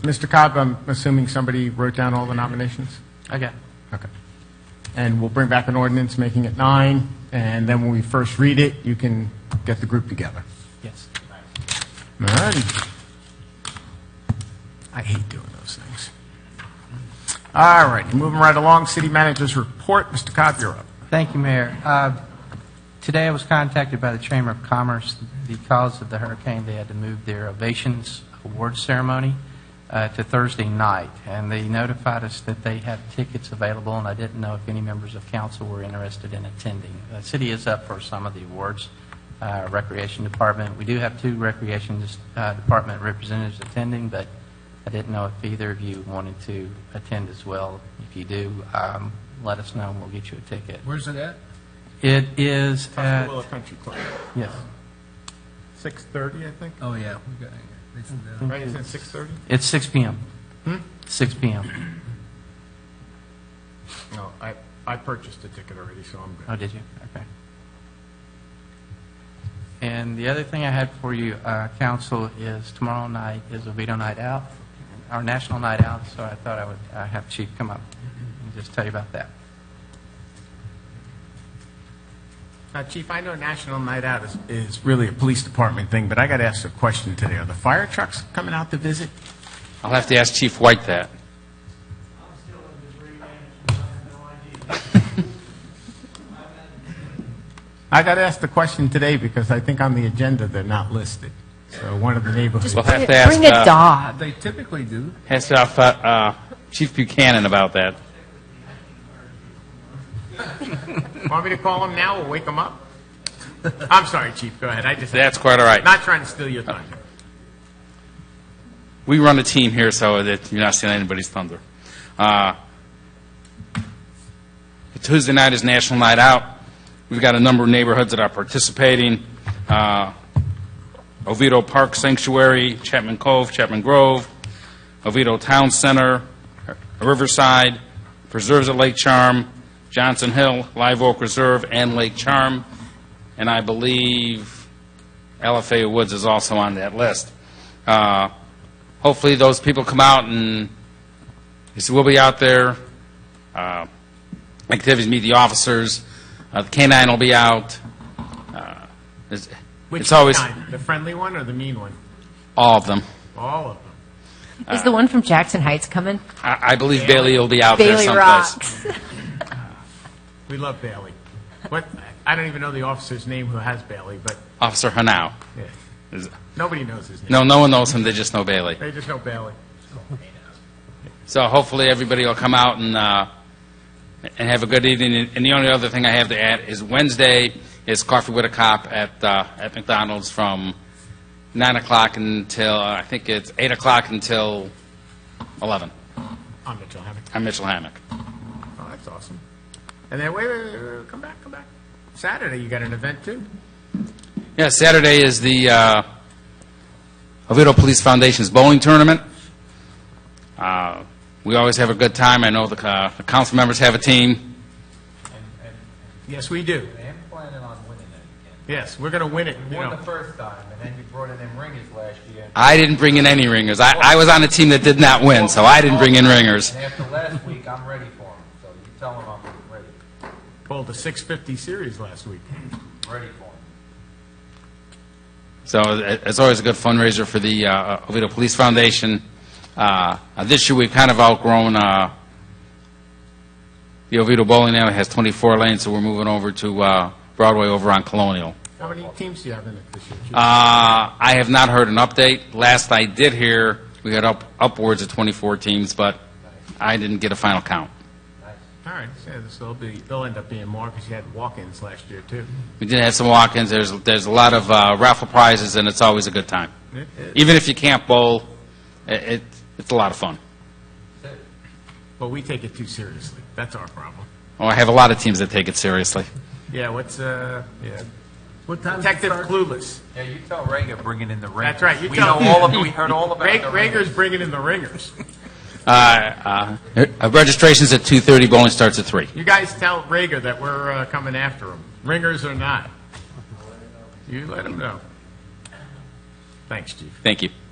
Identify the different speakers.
Speaker 1: Mr. Cobb, I'm assuming somebody wrote down all the nominations?
Speaker 2: Okay.
Speaker 1: Okay. And we'll bring back an ordinance making it nine, and then when we first read it, you can get the group together.
Speaker 2: Yes.
Speaker 1: All righty. I hate doing those things. All righty, moving right along, city manager's report. Mr. Cobb, you're up.
Speaker 2: Thank you, Mayor. Uh, Today I was contacted by the Chamber of Commerce because of the hurricane. They had to move their ovations award ceremony uh, to Thursday night, and they notified us that they had tickets available, and I didn't know if any members of council were interested in attending. The city is up for some of the awards, uh, Recreation Department. We do have two Recreation uh, Department representatives attending, but I didn't know if either of you wanted to attend as well. If you do, um, let us know, and we'll get you a ticket.
Speaker 3: Where's it at?
Speaker 2: It is
Speaker 4: Uh,
Speaker 2: at,
Speaker 1: Country Club,
Speaker 2: yes,
Speaker 1: 6:30, I think.
Speaker 3: Oh, yeah. we got it. It's in there.
Speaker 1: Right, is it 6:30?
Speaker 2: it's 6 PM. 6 PM.
Speaker 1: No, I, I purchased the ticket already, so I'm good.
Speaker 2: Oh, did you? Okay. And the other thing I had for you, uh, council, is tomorrow night is Oviedo Night Out, our national night out, so I thought I would uh, have Chief come up and just tell you about that.
Speaker 1: Now, Chief, I know National Night Out is, is really a police department thing, but I got to ask a question today. Are the fire trucks coming out to visit?
Speaker 4: I'll have to ask Chief White that.
Speaker 1: I got to ask the question today because I think on the agenda they're not listed. So one of the neighborhoods.
Speaker 4: We'll
Speaker 5: Bring
Speaker 4: have
Speaker 5: it-
Speaker 4: to ask,
Speaker 5: Bring a
Speaker 4: uh,
Speaker 5: dog.
Speaker 3: They typically do.
Speaker 4: ask uh, f- uh, Chief Buchanan about that.
Speaker 1: Want me to call them now? We'll wake them up? I'm sorry, Chief, go ahead. I just,
Speaker 4: That's quite all right.
Speaker 1: not trying to steal your time.
Speaker 4: Uh, We run a team here, so that you're not stealing anybody's thunder. Uh, Tuesday night is National Night Out. We've got a number of neighborhoods that are participating. Uh, Oviedo Park Sanctuary, Chapman Cove, Chapman Grove, Oviedo Town Center, Riverside, Preserves at Lake Charm, Johnson Hill, Live Oak Reserve, and Lake Charm. And I believe LFA Woods is also on that list. Uh, Hopefully, those people come out and, yes, we'll be out there. Uh, Activities, meet the officers. Uh, The K-9 will be out. Uh, It's
Speaker 1: Which
Speaker 4: it's always,
Speaker 1: kind? The friendly one or the mean one?
Speaker 4: all of them.
Speaker 1: All of them.
Speaker 5: Is the one from Jackson Heights coming?
Speaker 4: I, I believe Bailey will be out there
Speaker 5: Bailey
Speaker 4: someplace.
Speaker 5: Rocks.
Speaker 1: We love Bailey. What, I don't even know the officer's name who has Bailey, but
Speaker 4: Officer Hanau.
Speaker 1: yeah.
Speaker 4: Is-
Speaker 1: nobody knows his name.
Speaker 4: No, no one knows him. They just know Bailey.
Speaker 1: They just know Bailey. Oh.
Speaker 4: So hopefully everybody will come out and, uh, and have a good evening. And the only other thing I have to add is Wednesday is Coffee with a Cop at, uh, at McDonald's from 9 o'clock until, I think it's 8 o'clock until 11.
Speaker 1: I'm Mitchell Hammock.
Speaker 4: I'm Mitchell Hammack.
Speaker 1: Oh, that's awesome. And then, wait, wait, wait, wait, come back, come back. Saturday, you got an event too?
Speaker 4: Yeah, Saturday is the uh, Oviedo Police Foundation's bowling tournament. Uh, We always have a good time. I know the uh, the council members have a team.
Speaker 1: Yes, we do.
Speaker 6: I am planning on winning it
Speaker 1: Yes, we're going to win it, you
Speaker 6: again. Won the
Speaker 1: know.
Speaker 6: first time, and then you brought in them ringers last year.
Speaker 4: I didn't bring in any ringers. I I was on a team that did not win, so I didn't bring in ringers.
Speaker 6: And after last week, I'm ready for them, so you tell them I'm ready,
Speaker 1: Pulled the 650 series last week.
Speaker 6: ready for them.
Speaker 4: So it- it's always a good fundraiser for the uh, Oviedo Police Foundation. Uh, uh, This year, we've kind of outgrown, uh, the Oviedo Bowling Alley has 24 lanes, so we're moving over to uh, Broadway over on Colonial.
Speaker 1: How many teams do you have in it this year? Chief?
Speaker 4: Uh, I have not heard an update. Last I did hear, we had up upwards of 24 teams, but I didn't get a final count.
Speaker 1: All right, yeah, this will be, they'll end up being more because you had walk-ins last year too.
Speaker 4: We did have some walk-ins. There's there's a lot of uh, raffle prizes, and it's always a good time.
Speaker 1: It- it-
Speaker 4: Even if you can't bowl, i- it, it's a lot of fun.
Speaker 1: But we take it too seriously. That's our problem.
Speaker 4: Oh, I have a lot of teams that take it seriously.
Speaker 1: Yeah, what's, uh, yeah.
Speaker 3: What time does it
Speaker 1: Detective
Speaker 3: start?
Speaker 1: Clueless.
Speaker 6: Yeah, you tell Rager bringing in the ringers.
Speaker 1: That's right, you
Speaker 6: We
Speaker 1: tell
Speaker 6: know all of, we heard all about
Speaker 1: Ra-
Speaker 6: the ringers.
Speaker 1: Rager's bringing in the ringers.
Speaker 4: Uh, uh, uh, Registration's at 2:30, bowling starts at 3.
Speaker 1: You guys tell Rager that we're uh, coming after him, ringers or not. You let him know. Thanks, Chief.
Speaker 4: Thank you.